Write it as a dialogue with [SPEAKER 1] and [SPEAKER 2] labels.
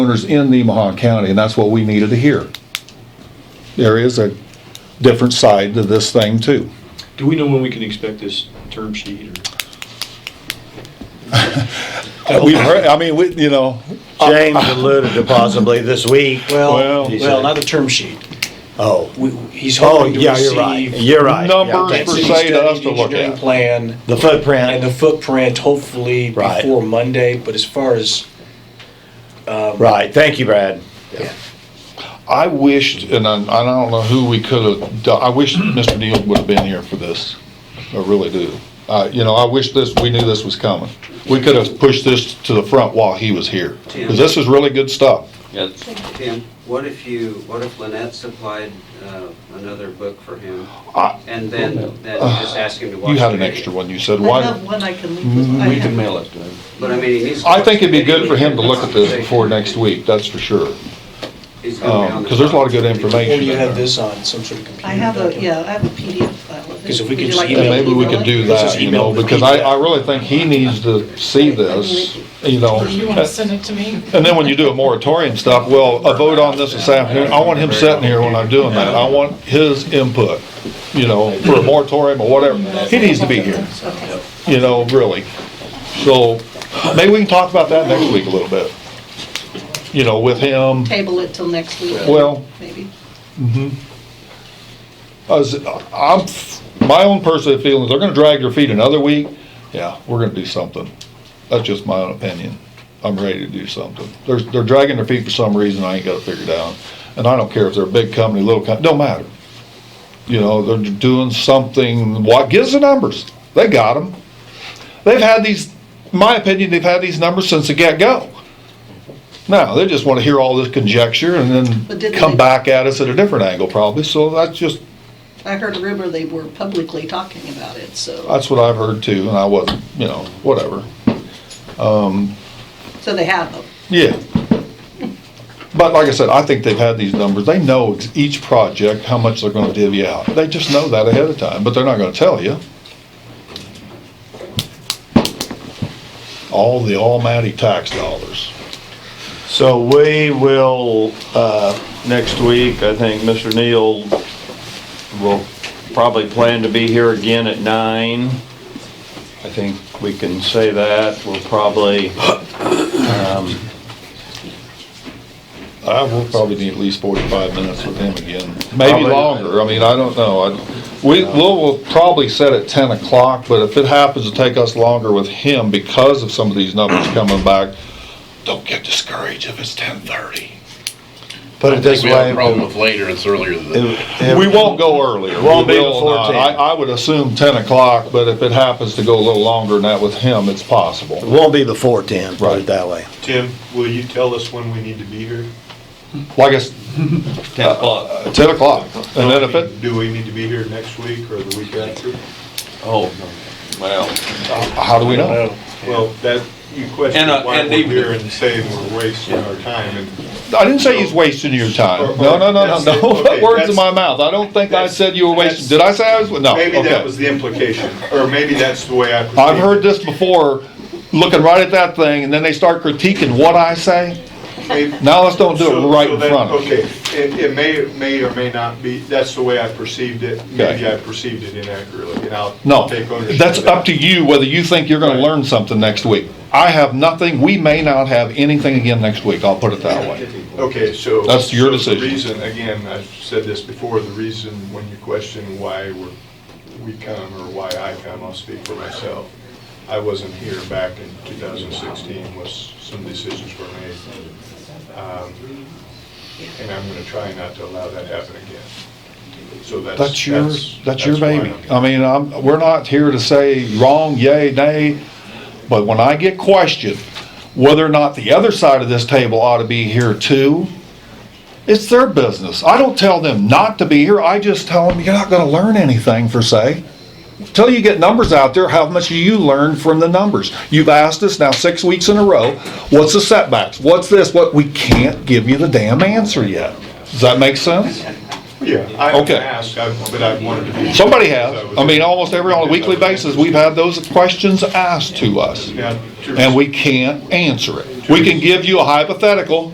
[SPEAKER 1] owners in Nemaha County, and that's what we needed to hear. There is a different side to this thing too.
[SPEAKER 2] Do we know when we can expect this term sheet or?
[SPEAKER 1] We've heard, I mean, we, you know,
[SPEAKER 3] James alluded to possibly this week.
[SPEAKER 1] Well-
[SPEAKER 2] Well,
[SPEAKER 3] he
[SPEAKER 2] well,
[SPEAKER 3] said.
[SPEAKER 2] not a term sheet.
[SPEAKER 3] Oh,
[SPEAKER 2] We- we- He's
[SPEAKER 3] oh,
[SPEAKER 2] hoping to
[SPEAKER 3] yeah, you're right,
[SPEAKER 2] receive.
[SPEAKER 3] you're right. Yeah,
[SPEAKER 1] Numbers
[SPEAKER 3] that's
[SPEAKER 1] per
[SPEAKER 3] it.
[SPEAKER 2] density
[SPEAKER 1] se to
[SPEAKER 2] study,
[SPEAKER 1] us to
[SPEAKER 2] the
[SPEAKER 1] look
[SPEAKER 2] engineering
[SPEAKER 1] at.
[SPEAKER 2] Plan
[SPEAKER 3] The
[SPEAKER 2] and the
[SPEAKER 3] footprint,
[SPEAKER 2] footprint hopefully
[SPEAKER 3] Right.
[SPEAKER 2] before Monday, but as far as,
[SPEAKER 3] right, thank you, Brad.
[SPEAKER 1] I wished, and I, I don't know who we could have, done- I wish Mr. Neal would have been here for this. I really do. Uh, you know, I wish this, we knew this was coming. We could have pushed this to the front while he was here, because this is really good stuff.
[SPEAKER 4] Tim, what if you, what if Lynette supplied uh, another book for him?
[SPEAKER 1] I-
[SPEAKER 4] And then, then just ask him to watch.
[SPEAKER 1] You had
[SPEAKER 4] the
[SPEAKER 1] an
[SPEAKER 4] video?
[SPEAKER 1] extra one, you said,
[SPEAKER 5] I
[SPEAKER 1] why?
[SPEAKER 5] have one I can leave. with- I
[SPEAKER 6] Mm, Mm-hmm. We
[SPEAKER 5] have-
[SPEAKER 6] can mail it to him.
[SPEAKER 4] But I mean, he needs. to
[SPEAKER 1] I
[SPEAKER 4] watch
[SPEAKER 1] think
[SPEAKER 4] the
[SPEAKER 1] it'd be
[SPEAKER 4] video.
[SPEAKER 1] good for him to look at this before next week, that's for sure.
[SPEAKER 4] He's gonna be on
[SPEAKER 1] um,
[SPEAKER 4] the
[SPEAKER 1] 'cause there's a lot of good
[SPEAKER 4] clock.
[SPEAKER 1] information.
[SPEAKER 2] or you have this on some sort of computer.
[SPEAKER 5] I have a,
[SPEAKER 2] document.
[SPEAKER 5] yeah, I have a PDF file of it.
[SPEAKER 2] 'Cause if we
[SPEAKER 5] Would
[SPEAKER 2] could
[SPEAKER 5] you
[SPEAKER 2] just
[SPEAKER 5] like me
[SPEAKER 1] And
[SPEAKER 2] email
[SPEAKER 5] to
[SPEAKER 1] maybe we
[SPEAKER 5] email
[SPEAKER 1] could
[SPEAKER 5] it?
[SPEAKER 1] do that,
[SPEAKER 2] Just
[SPEAKER 1] you
[SPEAKER 2] email
[SPEAKER 1] know,
[SPEAKER 2] the
[SPEAKER 1] because I, I really think he needs to see this, you know.
[SPEAKER 7] You want to send it to me?
[SPEAKER 1] And then when you do a moratorium stuff, well, a vote on this this afternoon, I want him sitting here when I'm doing that. I want his input, you know, for a moratorium or whatever. He needs to be here, you know, really. So maybe we can talk about that next week a little bit. You know, with him,
[SPEAKER 5] Table it till next week.
[SPEAKER 1] Well-
[SPEAKER 5] Maybe.
[SPEAKER 1] as, I'm, my own personal feelings, they're gonna drag your feet another week. Yeah, we're gonna do something. That's just my own opinion. I'm ready to do something. They're, they're dragging their feet for some reason I ain't got it figured out. And I don't care if they're a big company, little company, don't matter. You know, they're doing something, what, give us the numbers. They got them. They've had these, my opinion, they've had these numbers since the get-go. Now, they just wanna hear all this conjecture and then
[SPEAKER 5] But didn't
[SPEAKER 1] come
[SPEAKER 5] they-
[SPEAKER 1] back at us at a different angle probably, so that's just,
[SPEAKER 5] I heard a rumor they were publicly talking about it, so,
[SPEAKER 1] That's what I've heard too, and I wasn't, you know, whatever.
[SPEAKER 5] so they have them.
[SPEAKER 1] Yeah. But like I said, I think they've had these numbers. They know ex- each project, how much they're gonna divvy out. They just know that ahead of time, but they're not gonna tell you. All the almighty tax dollars.
[SPEAKER 3] So we will, uh, next week, I think Mr. Neal will probably plan to be here again at nine. I think we can say that. We'll probably, um,
[SPEAKER 1] I will probably need at least forty-five minutes with him again, maybe
[SPEAKER 3] Probably.
[SPEAKER 1] longer. I mean, I don't know. I- We, we'll, we'll probably set at ten o'clock, but if it happens to take us longer with him because of some of these numbers coming back, don't get discouraged if it's ten-thirty.
[SPEAKER 3] put it this
[SPEAKER 8] We have a
[SPEAKER 3] way.
[SPEAKER 8] problem with later, it's earlier than that.
[SPEAKER 3] if-
[SPEAKER 1] We won't go earlier. We
[SPEAKER 3] Won't be
[SPEAKER 1] will
[SPEAKER 3] before
[SPEAKER 1] not.
[SPEAKER 3] 10.
[SPEAKER 1] I, I would assume ten o'clock, but if it happens to go a little longer than that with him, it's
[SPEAKER 3] It
[SPEAKER 1] possible.
[SPEAKER 3] Won't be before ten, put
[SPEAKER 1] Right.
[SPEAKER 3] it that way.
[SPEAKER 9] Tim, will you tell us when we need to be here?
[SPEAKER 1] Like I s-
[SPEAKER 6] Ten o'clock.
[SPEAKER 1] uh, ten o'clock, and then if it,
[SPEAKER 9] Do we need to be here next week or the week after?
[SPEAKER 6] Oh, well,
[SPEAKER 1] how do we know?
[SPEAKER 9] Well, that, you question
[SPEAKER 6] And, uh,
[SPEAKER 9] why
[SPEAKER 6] and
[SPEAKER 9] we're
[SPEAKER 6] they-
[SPEAKER 9] here and saying we're wasting our time and
[SPEAKER 1] I didn't say he's wasting your time. No, no, no, no, no.
[SPEAKER 9] Okay, that's-
[SPEAKER 1] Words in my mouth. I don't think I said you were wasting. Did I say I was? No.
[SPEAKER 9] maybe that was
[SPEAKER 1] Oh, Okay.
[SPEAKER 9] the implication, or maybe that's the way I perceived it.
[SPEAKER 1] I've heard this before, looking right at that thing, and then they start critiquing what I say.
[SPEAKER 9] Maybe-
[SPEAKER 1] Now let's don't do
[SPEAKER 9] So-
[SPEAKER 1] it right
[SPEAKER 9] so
[SPEAKER 1] in
[SPEAKER 9] then-
[SPEAKER 1] front of
[SPEAKER 9] Okay,
[SPEAKER 1] you.
[SPEAKER 9] it, it may, may or may not be, that's the way I perceived it. Maybe
[SPEAKER 1] Okay.
[SPEAKER 9] I perceived it inaccurately, and I'll
[SPEAKER 1] No,
[SPEAKER 9] take ownership.
[SPEAKER 1] that's up to you whether you think you're gonna
[SPEAKER 9] Right.
[SPEAKER 1] learn something next week. I have nothing. We may not have anything again next week. I'll put it that way.
[SPEAKER 9] Okay, so.
[SPEAKER 1] That's your
[SPEAKER 9] so the
[SPEAKER 1] decision.
[SPEAKER 9] reason, again, I've said this before, the reason when you question why we're, we come or why I come, I'll speak for myself. I wasn't here back in 2016 was some decisions were made. Um, And I'm gonna try not to allow that happen again. So that's.
[SPEAKER 1] That's your, that's your
[SPEAKER 9] why I'm
[SPEAKER 1] baby.
[SPEAKER 9] here.
[SPEAKER 1] I mean, I'm, we're not here to say wrong, yay, nay, but when I get questioned whether or not the other side of this table ought to be here too, it's their business. I don't tell them not to be here, I just tell them, you're not gonna learn anything per se. Till you get numbers out there, how much do you learn from the numbers? You've asked us now six weeks in a row, what's the setbacks? What's this? What, we can't give you the damn answer yet. Does that make sense?
[SPEAKER 9] Yeah, I haven't
[SPEAKER 1] Okay.
[SPEAKER 9] asked, I've- but I wanted to be.
[SPEAKER 1] Somebody has. I mean, almost every, on a weekly basis, we've had those questions asked to us,
[SPEAKER 9] Now, to-
[SPEAKER 1] and we can't answer it. We can give you a hypothetical,